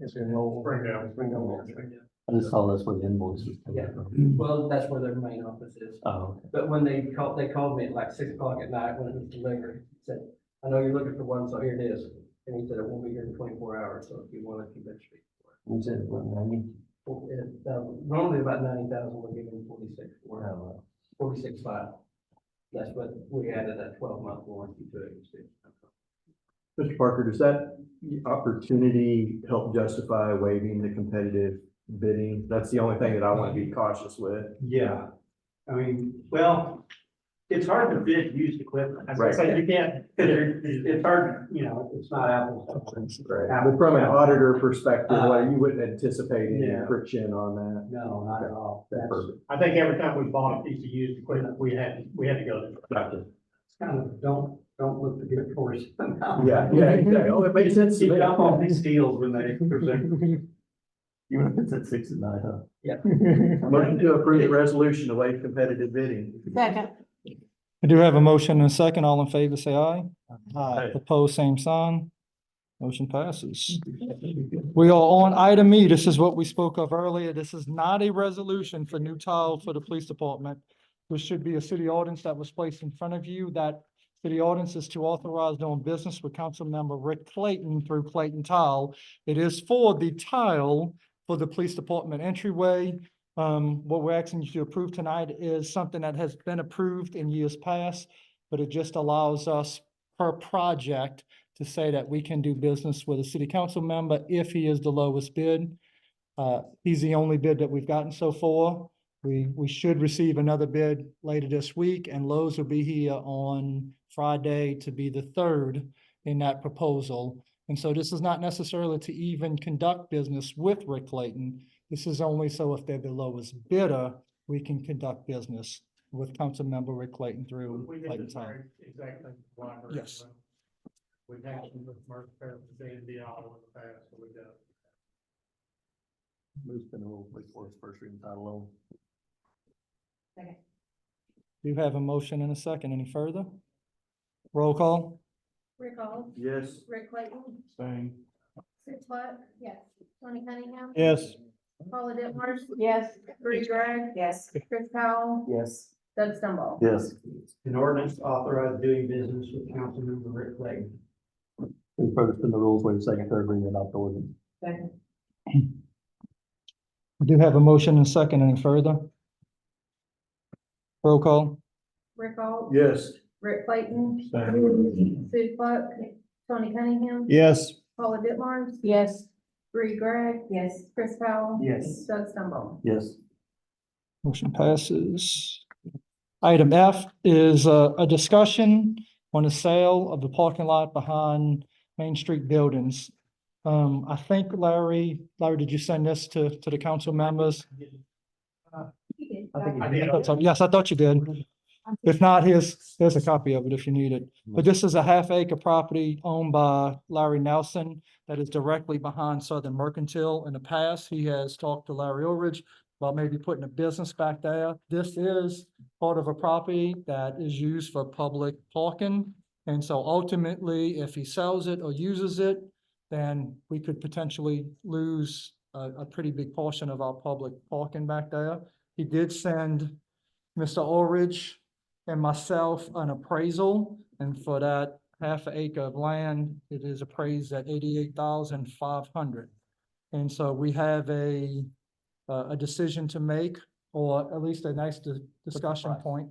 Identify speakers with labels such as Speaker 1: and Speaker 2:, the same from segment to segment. Speaker 1: It's in old.
Speaker 2: Springdale.
Speaker 1: Springdale.
Speaker 3: I just saw that's where the invoices. come
Speaker 4: Yeah.
Speaker 3: from.
Speaker 4: Well, that's where their main office is.
Speaker 3: Oh, okay.
Speaker 4: But when they called, they called me at like six o'clock at night when it was delivered, said, I know you're looking for one, so here it is. And he said, it won't be here in twenty-four hours, so if you want it, you better speak.
Speaker 3: You said it wasn't ninety?
Speaker 4: Well, it, um, Normally about ninety thousand, we're giving forty-six,
Speaker 3: Oh,
Speaker 4: or
Speaker 3: well.
Speaker 4: forty-six five. That's what we added that twelve-month warranty to it.
Speaker 5: Mr. Parker, does that opportunity help justify waiving the competitive bidding? That's the only thing that I want to be cautious with.
Speaker 2: Yeah, I mean, well, it's hard to bid used equipment. As I
Speaker 5: Right.
Speaker 2: said, you can't, it's hard, you know, it's not apples. to apples.
Speaker 5: Right. But from an auditor perspective,
Speaker 2: Uh,
Speaker 5: like, you wouldn't anticipate any
Speaker 2: yeah.
Speaker 5: friction on that.
Speaker 2: No, not at all.
Speaker 5: That's
Speaker 2: That's-
Speaker 5: perfect.
Speaker 2: I think every time we bought a piece of used equipment, we had, we had to go. to-
Speaker 5: Gotcha.
Speaker 2: It's kind of, don't, don't look the gift horse.
Speaker 5: Yeah, yeah, exactly. Oh, it makes sense to
Speaker 2: Keep
Speaker 5: me.
Speaker 2: up on these deals when they present.
Speaker 3: Even if it's at six at night, huh?
Speaker 5: Motion to approve the resolution to waive competitive bidding.
Speaker 6: Second.
Speaker 7: I do have a motion and a second. All in favor, say aye.
Speaker 5: Aye.
Speaker 7: Opposed, same sign. Motion passes. We are on item E. This is what we spoke of earlier. This is not a resolution for new tile for the police department. This should be a city ordinance that was placed in front of you. That city ordinance is to authorize doing business with council member Rick Clayton through Clayton Tile. It is for the tile for the police department entryway. Um, what we're asking you to approve tonight is something that has been approved in years past, but it just allows us per project to say that we can do business with a city council member if he is the lowest bid. Uh, he's the only bid that we've gotten so far. We, we should receive another bid later this week and Lowe's will be here on Friday to be the third in that proposal. And so this is not necessarily to even conduct business with Rick Clayton. This is only so if they're the lowest bidder, we can conduct business with council member Rick Clayton through
Speaker 2: We did
Speaker 7: Clayton
Speaker 2: this
Speaker 7: Tile.
Speaker 2: very- exactly. the library.
Speaker 7: Yes.
Speaker 2: We've had some with Mark Fair, Dan Diallo in the past, so we got.
Speaker 3: Move's been a little quick for its first reading title alone.
Speaker 7: Do you have a motion and a second? Any further? Roll call?
Speaker 6: Rick Hall,
Speaker 5: Yes.
Speaker 6: Rick Clayton,
Speaker 5: Same.
Speaker 6: Sue Pluck, yes, Tony Cunningham.
Speaker 7: Yes.
Speaker 6: Paula Dittmars. Yes. Bree Greg. Yes. Chris Powell,
Speaker 3: Yes.
Speaker 6: Doug Stumble.
Speaker 3: Yes.
Speaker 2: An ordinance authorized doing business with Councilmember Rick Clayton.
Speaker 3: Any further than the rules, waive second, third reading, and adopt the ordinance.
Speaker 7: We do have a motion and a second. Any further? Roll call?
Speaker 6: Rick Hall.
Speaker 5: Yes.
Speaker 6: Rick Clayton. Sue Pluck, Tony Cunningham.
Speaker 7: Yes.
Speaker 6: Paula Dittmars. Yes. Bree Greg. Yes. Chris Powell.
Speaker 2: Yes.
Speaker 6: Doug Stumble.
Speaker 3: Yes.
Speaker 7: Motion passes. Item F is uh, a discussion on the sale of the parking lot behind Main Street buildings. Um, I think Larry, Larry, did you send this to, to the council members?
Speaker 2: I did.
Speaker 7: I thought- Yes, I thought you did. If not, here's, here's a copy of it if you need it. But this is a half acre property owned by Larry Nelson that is directly behind Southern Mercantile. In the past, he has talked to Larry Orridge about maybe putting a business back there. This is part of a property that is used for public parking. And so ultimately, if he sells it or uses it, then we could potentially lose a, a pretty big portion of our public parking back there. He did send Mr. Orridge and myself an appraisal, and for that half acre of land, it is appraised at eighty-eight thousand five hundred. And so we have a, a a decision to make, or at least a nice di- discussion point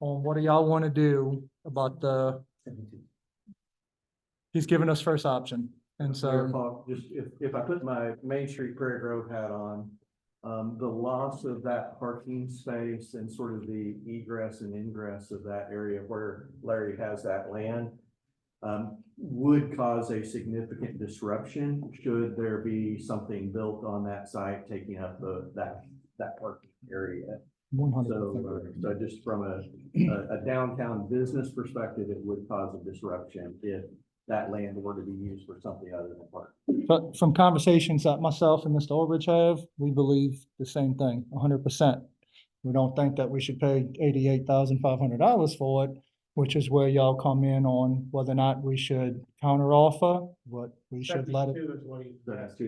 Speaker 7: on what do y'all want to do about the, he's given us first option, and
Speaker 5: Mayor
Speaker 7: so,
Speaker 5: Falk, Just if, if I put my Main Street Prairie Grove hat on, um, the loss of that parking space and sort of the egress and ingress of that area where Larry has that land um, would cause a significant disruption should there be something built on that site taking up the, that, that parking area.
Speaker 7: one hundred
Speaker 5: So,
Speaker 7: percent.
Speaker 5: uh, so just from a, a a downtown business perspective, it would cause a disruption if that land were to be used for something other than parking.
Speaker 7: But from conversations that myself and Mr. Orridge have, we believe the same thing, hundred percent. We don't think that we should pay eighty-eight thousand five hundred dollars for it, which is where y'all come in on whether or not we should counteroffer, what we should let it.
Speaker 2: Seventy-two is what he-
Speaker 5: That's